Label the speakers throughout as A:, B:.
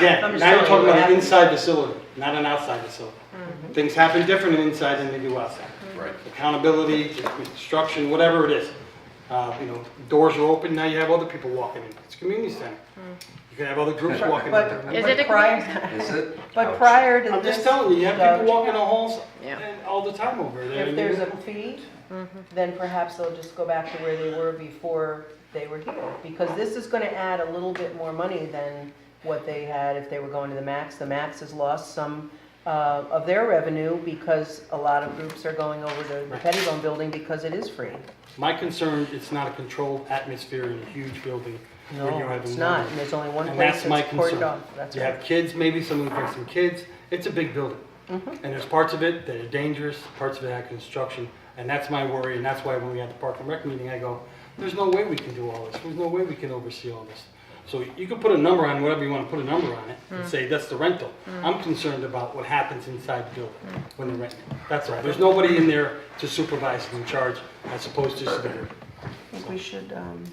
A: Yeah,
B: I'm just
A: now you're talking
B: telling you what
A: about an
B: happened. Mm-hmm.
A: inside facility, not an outside facility. Things happen different inside than they do outside.
C: Right.
A: Accountability, construction, whatever it is. Uh, You know, doors are open, now you have other people walking in. It's a community center. You can have other groups walking in.
B: Mm-hmm. But,
A: there.
D: Is it a
B: but prior,
C: Is it?
B: but
C: Ouch.
B: prior to
A: I'm
B: this,
A: just telling you, you have people
B: Doug,
A: walking the halls
D: Yeah.
A: and all the time over there.
B: if there's a fee, then perhaps they'll just go back to where they were before they were here. Because this is gonna add a little bit more money than what they had if they were going to the max. The max has lost some uh, of their revenue because a lot of groups are going over to the
A: Right.
B: Pettibone building because it is free.
A: My concern, it's not a controlled atmosphere in a huge building. where you
B: No,
A: have
B: it's
A: a-
B: not, and there's only one
A: And
B: place
A: that's my
B: that's cordoned
A: concern.
B: off, that's
A: You
B: right.
A: have kids, maybe someone brings some kids. It's a big building.
B: Mm-hmm.
A: And there's parts of it that are dangerous, parts of it have construction. And that's my worry, and that's why when we had the Park and Rec meeting, I go, there's no way we can do all this. There's no way we can oversee all this. So you can put a number on whatever you want to put a number on it and
B: Mm.
A: say, that's the rental. I'm concerned about what happens inside the building
B: Mm.
A: when they're renting. That's all. There's nobody in there to supervise and in charge as opposed to just the group.
B: I think we should, um,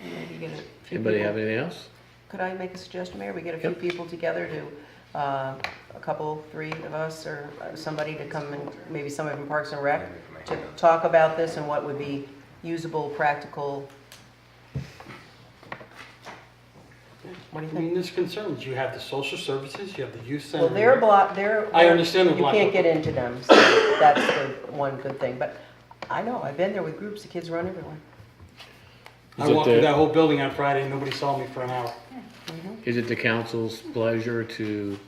B: maybe get a few
E: Anybody
B: people-
E: have anything else?
B: Could I make a suggestion, Mayor? We get a few people together to, uh, a couple, three of us or uh, somebody to come and, maybe somebody from Parks and Rec, to talk about this and what would be usable, practical. What do you
A: I
B: think?
A: mean, there's concerns. You have the social services, you have the youth center.
B: Well, they're blocked, they're.
A: I understand they're blocked.
B: You can't get into them, so that's the one good thing. But I know, I've been there with groups, the kids run everywhere.
A: I
E: Is it
A: walked through
E: the-
A: that whole building on Friday and nobody saw me for an hour.
E: Is it the council's pleasure to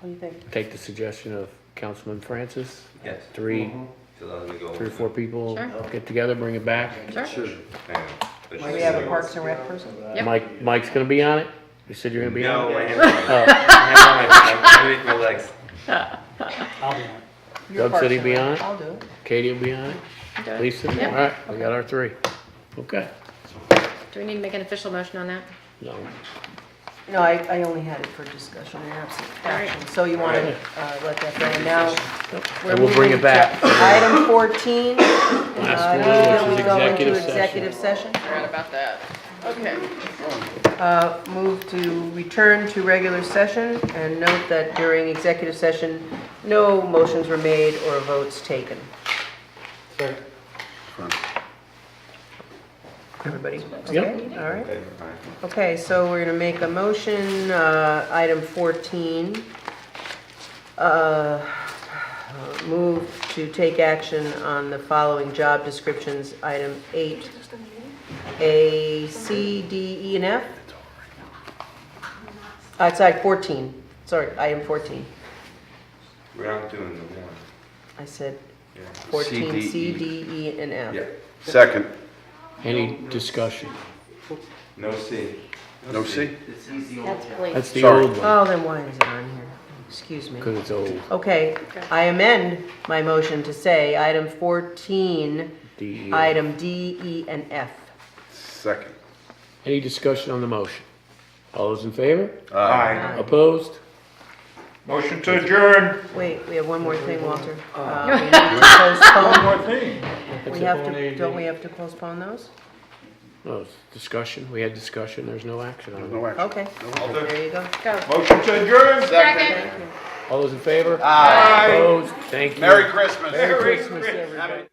B: What do you think?
E: take the suggestion of Councilman Francis?
C: Yes.
E: Three,
C: So that would go.
E: three or four people
D: Sure.
E: get together, bring it back.
D: Sure.
C: Hang on.
B: Do we have a Parks and Rec person?
D: Yep.
E: Mike, Mike's gonna be on it? You said you're gonna be on
C: No,
E: it?
C: I am.
E: Oh.
C: I'm breaking my legs.
A: I'll be honest.
B: Your
E: Doug
B: Parks
E: said he'd
B: and
E: be
B: Rec.
E: on it?
B: I'll do it.
E: Katie will be on it?
D: Do it.
E: Lisa?
D: Yep.
E: All right, we got our three. Okay.
D: Do we need to make an official motion on that?
E: No.
B: No, I, I only had it for discussion and absent
D: All right.
B: action, so you want to let that go, and now. we're
E: And we'll bring
B: moving
E: it back.
B: to Item Uh, 14.
E: Last one, which is
B: Going
E: executive
B: to
E: session.
B: executive session.
D: Forgot about that. Okay.
B: Uh, Move to return to regular session, and note that during executive session, no motions were made or votes taken.
A: Sorry.
B: Everybody,
E: Yep.
B: okay? All right. Okay, so we're gonna make a motion, uh, item 14. Uh, Move to take action on the following job descriptions, item 8, A, C, D, E, and F? Outside 14, sorry, item 14.
C: We're not doing the one.
B: I said
C: Yeah.
B: 14, C, D, E, and F.
C: Yeah.
F: Second,
E: Any discussion?
C: No C.
F: no C?
D: That's Blake.
E: That's the
F: Sorry.
E: old one,
B: Oh, then why is it on here? Excuse me.
E: because it's old.
B: Okay,
D: Okay.
B: I amend my motion to say item 14,
E: The- uh,
B: item D, E, and F.
F: Second.
E: Any discussion on the motion? All those in favor?
C: Aye.
E: Opposed?
G: Motion to adjourn.
B: Wait, we have one more thing, Walter. Uh, we need to
G: One thing.
B: postpone- We have
A: Postpone
B: to,
A: A,
B: don't
A: B.
B: we have to postpone those?
E: No, it's discussion. We had discussion. There's no action on it.
F: No action.
B: Okay,
C: I'll do it.
B: there you go.
D: Go.
G: Motion to adjourn.
D: Second.
E: All those in favor?
F: Aye.
E: Opposed? Thank you.
F: Merry Christmas.
G: Merry
B: Christmas, everybody.